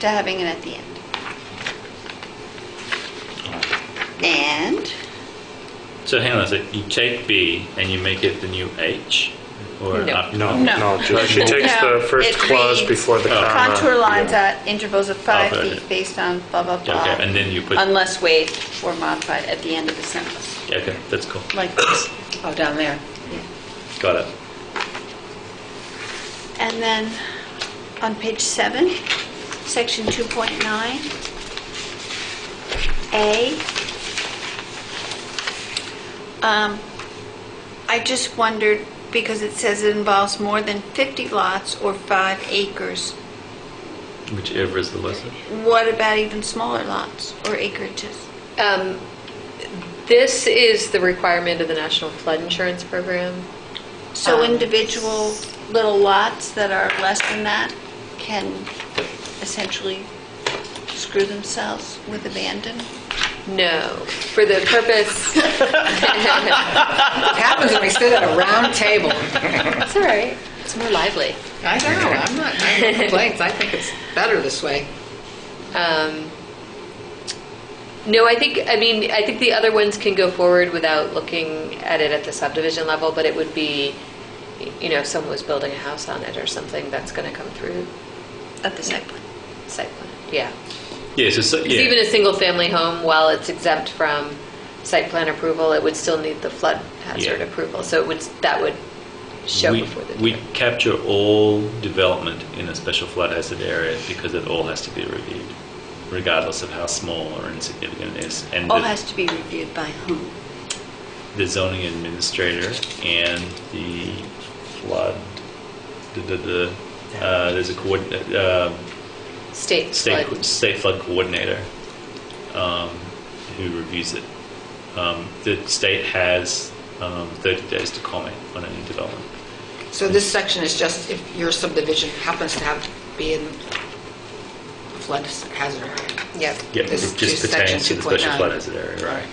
to having it at the end. And, So hang on a sec. You take B and you make it the new H, or No. up- No, No. no, just- she No. takes the first It clause reads, before the Oh. comma. contour lines at intervals of five Oh, okay. feet based on blah, blah, Yeah, blah. okay, and then you put- Unless waived or modified at the end of the sentence, Yeah, okay, that's cool. like this. Oh, down there. Got it. And then on page seven, section 2.9, A, um, I just wondered, because it says it involves more than 50 lots or five acres, Whichever is the lesser. what about even smaller lots or acreages? Um, This is the requirement of the National Flood Insurance Program. So Um, individual little lots that are less than that can essentially screw themselves with abandon? No, for the purpose, What happens when we sit at a round table? it's all right, it's more lively. I know, I'm not, I have no complaints, I think it's better this way. Um, No, I think, I mean, I think the other ones can go forward without looking at it at the subdivision level, but it would be, you know, if someone was building a house on it or something, that's going to come through At the site plan. site plan, yeah. Yeah, so, so Because even yeah. a single-family home, while it's exempt from site plan approval, it would still need the flood hazard Yeah. approval. So it would, that would show We, before the. we development. capture all development in a special flood hazard area because it all has to be reviewed, regardless of how small or insignificant it is. And All the- has to be reviewed by whom? the zoning administrator and the flood, the, the, the, uh, there's a coordinate, uh, State state, co- flood. state flood coordinator, um, who reviews it. Um, the state has, um, thirty days to comment on any development. So this section is just if your subdivision happens to have, be in flood hazard. Yep. Yeah, This it just is section pertains to the special 2.9. flood hazard area, right?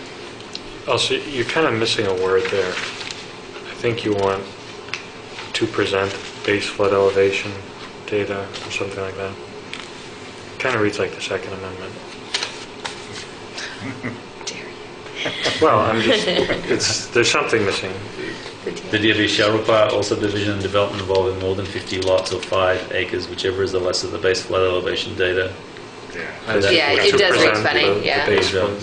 Also, you're kind of missing a word there. I think you want to present base flood elevation data or something like that. Kind of reads like the Second Amendment. Well, I'm just, it's, there's something missing. The DRB shall require all subdivision and development involving more than 50 lots or 5 acres, whichever is the less of the base flood elevation data. That's Yeah, what it to does read present funny, the- the yeah. base flood,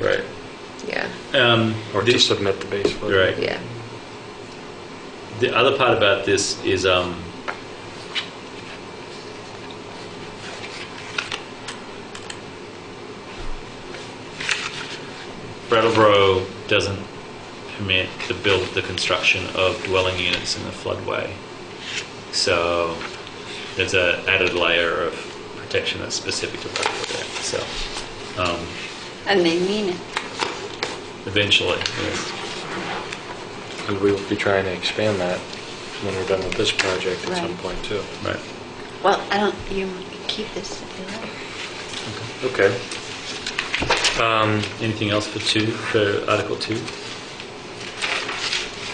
Right. Yeah, Um, Or the- to submit the base flood. Right. yeah. The other part about this is um, Brattleboro doesn't permit the build, the construction of dwelling units in the floodway. So there's a added layer of protection that's specific to Brattleboro. there. So um, And they mean it. eventually, yes. And we will be trying to expand that when we're done with this project at some Right. point, too. right. Well, I don't, you keep this if you like. Okay. Um, Anything else for two, for Article 2?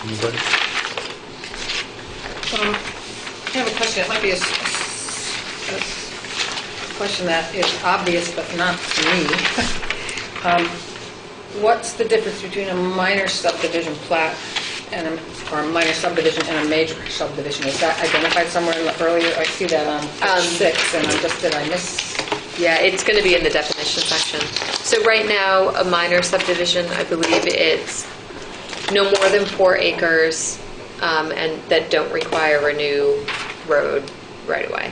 Anybody? Um, I have a question, it might be a, s- a s- a question that is obvious, but not to me. Um, What's the difference between a minor subdivision plat and, a- or a minor subdivision and a major subdivision? Is that identified somewhere in the earlier, I see that on Um, page six, and I'm just, did I miss? Yeah, it's going to be in the definition section. So right now, a minor subdivision, I believe it's no more than four acres um, and that don't require a new road right away.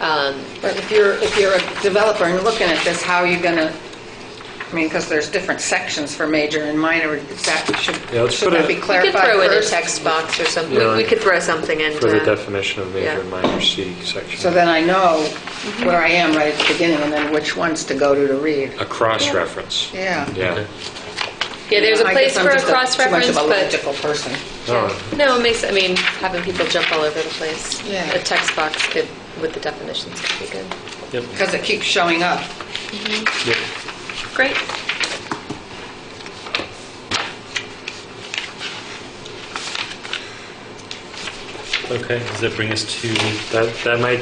Um, But if you're, if you're a developer and looking at this, how are you gonna, I mean, because there's different sections for major and minor, is that, should, Yeah, let's should put that it- be We could We could clarified throw in a first? text box or something, Yeah. we could throw something in. For the to- definition of yeah. major and minor C section. So then I know where I am right at the beginning, and then which ones to go to to read. A cross-reference. Yeah. Uh, Yeah. Yeah, there's a I place guess I'm for a just cross-reference, Too much of a but, logical person. Oh, no, it makes, I mean, having people jump all over the place. Yeah. A text box could, with the definitions could be good. Yep. Because it keeps showing up. Yep. Great. Okay, does that bring us to That, that might